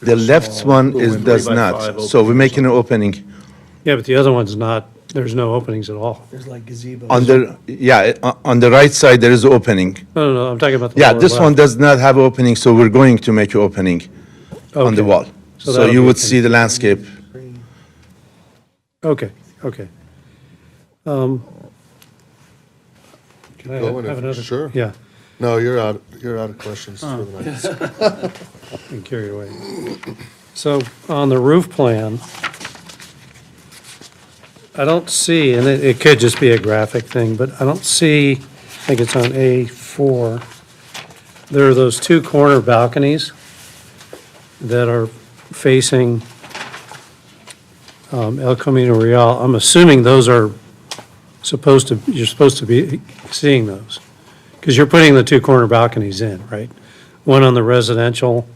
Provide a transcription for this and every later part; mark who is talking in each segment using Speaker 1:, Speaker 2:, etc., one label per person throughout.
Speaker 1: The left one is,
Speaker 2: Three
Speaker 1: does
Speaker 2: by five
Speaker 1: not, so
Speaker 2: opening
Speaker 1: we're
Speaker 2: or
Speaker 1: making an opening.
Speaker 3: Yeah, but the other one's not, there's no openings at all.
Speaker 4: There's like gazebos.
Speaker 1: On the, yeah, uh, on the right side, there is opening.
Speaker 3: No, no, no, I'm talking about the
Speaker 1: Yeah,
Speaker 3: lower
Speaker 1: this one
Speaker 3: left.
Speaker 1: does not have opening, so we're going to make an opening on the
Speaker 3: Okay.
Speaker 1: wall. So
Speaker 3: So that'll
Speaker 1: you
Speaker 3: be
Speaker 1: would
Speaker 3: opening.
Speaker 1: see the landscape.
Speaker 4: Green.
Speaker 3: Okay, okay. Um, Can I
Speaker 2: Go in
Speaker 3: have
Speaker 2: if-
Speaker 3: another?
Speaker 2: sure.
Speaker 3: Yeah,
Speaker 2: No, you're out, you're out of questions for the night.
Speaker 3: and carried away. So on the roof plan, I don't see, and it, it could just be a graphic thing, but I don't see, I think it's on A4, there are those two corner balconies that are facing um, El Camino Real. I'm assuming those are supposed to, you're supposed to be seeing those, because you're putting the two corner balconies in, right? One on the residential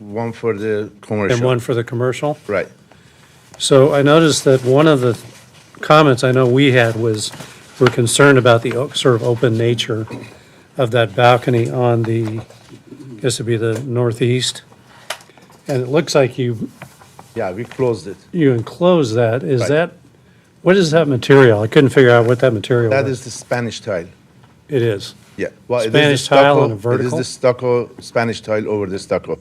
Speaker 1: One for the commercial.
Speaker 3: and one for the commercial?
Speaker 1: Right.
Speaker 3: So I noticed that one of the comments I know we had was, we're concerned about the o- sort of open nature of that balcony on the, I guess it'd be the northeast. And it looks like you,
Speaker 1: Yeah, we closed it.
Speaker 3: you enclose that. Is
Speaker 1: Right.
Speaker 3: that, what is that material? I couldn't figure out what that material
Speaker 1: That
Speaker 3: was.
Speaker 1: is the Spanish tile.
Speaker 3: It is.
Speaker 1: Yeah. Well, it is the
Speaker 3: Spanish tile on
Speaker 1: stucco- It
Speaker 3: a
Speaker 1: is
Speaker 3: vertical?
Speaker 1: the stucco, Spanish tile over the stucco.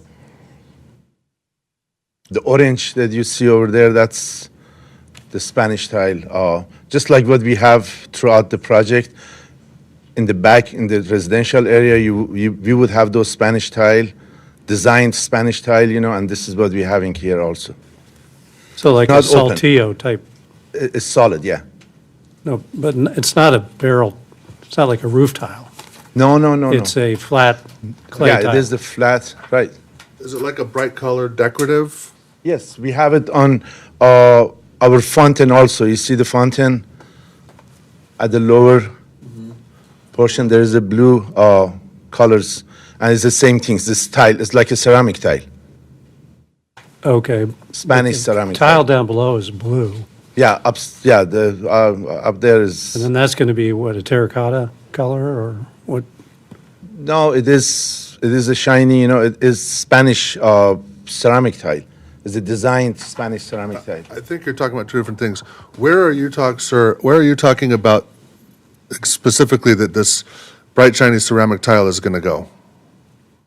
Speaker 1: The orange that you see over there, that's the Spanish tile. Uh, just like what we have throughout the project, in the back, in the residential area, you, you we would have those Spanish tile, designed Spanish tile, you know, and this is what we're having here also.
Speaker 3: So like a
Speaker 1: Not open.
Speaker 3: saltillo type,
Speaker 1: I- it's solid, yeah.
Speaker 3: no, but n- it's not a barrel, it's not like a roof tile.
Speaker 1: No, no, no,
Speaker 3: It's
Speaker 1: no.
Speaker 3: a flat clay
Speaker 1: yeah,
Speaker 3: tile.
Speaker 1: it is the flat, right?
Speaker 2: Is it like a bright colored decorative?
Speaker 1: Yes, we have it on uh, our fountain also. You see the fountain at the lower portion. There is a blue uh, colors, and it's the same things. This tile it's like a ceramic tile,
Speaker 3: Okay.
Speaker 1: Spanish ceramic
Speaker 3: Tile down below is blue,
Speaker 1: Yeah, up yeah the uh, up there is
Speaker 3: and then that's going to be what, a terracotta color or what?
Speaker 1: no. It is it is a shiny. You know, it is Spanish uh, ceramic tile. It's a designed Spanish ceramic tile.
Speaker 2: I think you're talking about two different things. Where are you talk, sir, where are you talking about specifically that this bright shiny ceramic tile is gonna go?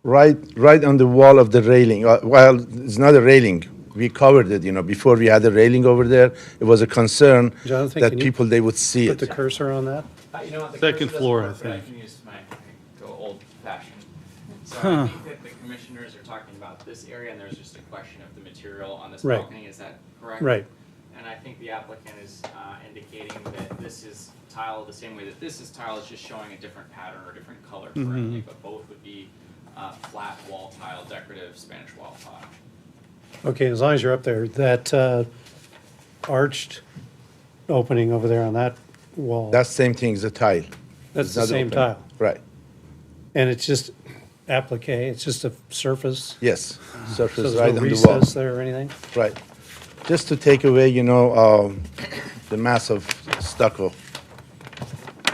Speaker 1: Right, right on the wall of the railing. Uh, well, it's not a railing. We covered it, you know. Before we had a railing over there, it was a concern
Speaker 3: Jonathan,
Speaker 1: that
Speaker 3: can you
Speaker 1: people they would see
Speaker 3: Put
Speaker 1: it.
Speaker 3: the cursor on that?
Speaker 5: Uh, You know what? The
Speaker 6: Second
Speaker 5: cursor
Speaker 6: floor,
Speaker 5: doesn't
Speaker 6: I
Speaker 5: work,
Speaker 6: think.
Speaker 5: but I can use my, I can go old fashioned. So I think that the commissioners are talking about this area and there's just a question of the material on this
Speaker 3: Right.
Speaker 5: balcony, is that correct?
Speaker 3: Right.
Speaker 5: And I think the applicant is uh, indicating that this is tile the same way that this is tile, it's just showing a different pattern or different color
Speaker 6: Mm-hmm.
Speaker 5: currently, but both would be uh, flat wall tile, decorative Spanish wall tile.
Speaker 3: Okay, as long as you're up there, that uh, arched opening over there on that wall,
Speaker 1: That same thing is a tile.
Speaker 3: that's
Speaker 1: It's
Speaker 3: the
Speaker 1: not
Speaker 3: same
Speaker 1: open.
Speaker 3: tile.
Speaker 1: Right.
Speaker 3: And it's just applique, it's just a surface,
Speaker 1: Yes.
Speaker 3: so
Speaker 1: Surface
Speaker 3: there's
Speaker 1: right
Speaker 3: no
Speaker 1: on the wall.
Speaker 3: recess there or anything?
Speaker 1: Right. Just to take away, you know, um, the mass of stucco.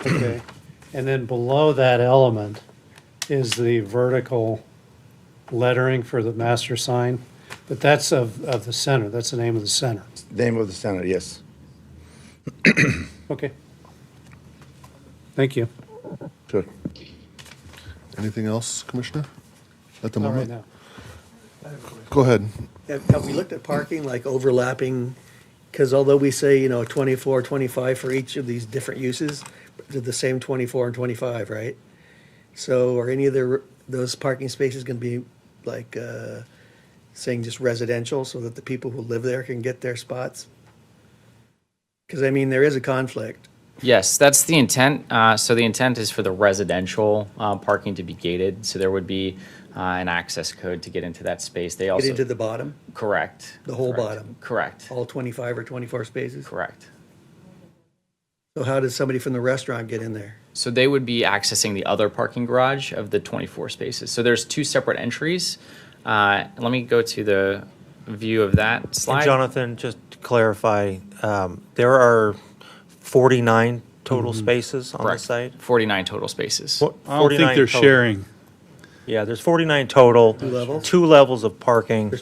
Speaker 3: Okay, and then below that element is the vertical lettering for the master sign, but that's of, of the center, that's the name of the center.
Speaker 1: Name of the center. Yes.
Speaker 3: Okay. Thank you.
Speaker 1: Sure.
Speaker 2: Anything else, Commissioner? At the
Speaker 3: Not right
Speaker 2: moment?
Speaker 3: now.
Speaker 2: Go ahead.
Speaker 4: Have have we looked at parking, like overlapping? Because although we say, you know, 24, 25 for each of these different uses, they're the same 24 and 25, right? So are any of their, those parking spaces going to be like uh, saying just residential so that the people who live there can get their spots? Because I mean, there is a conflict.
Speaker 5: Yes, that's the intent. Uh, So the intent is for the residential uh, parking to be gated, so there would be uh, an access code to get into that space. They
Speaker 4: Get
Speaker 5: also,
Speaker 4: into the bottom,
Speaker 5: correct.
Speaker 4: the whole
Speaker 5: correct,
Speaker 4: bottom.
Speaker 5: Correct,
Speaker 4: all 25 or 24 spaces?
Speaker 5: correct.
Speaker 4: So how does somebody from the restaurant get in there?
Speaker 5: So they would be accessing the other parking garage of the 24 spaces. So there's two separate entries. Uh, Let me go to the view of that
Speaker 7: And
Speaker 5: slide.
Speaker 7: Jonathan, just to clarify, um, there are 49 total spaces on the
Speaker 5: Correct.
Speaker 7: site?
Speaker 5: 49 total spaces.
Speaker 7: Fo-
Speaker 6: I don't
Speaker 7: 49
Speaker 6: think they're
Speaker 7: total.
Speaker 6: sharing.
Speaker 7: Yeah, there's 49 total. Two levels? Two levels of parking.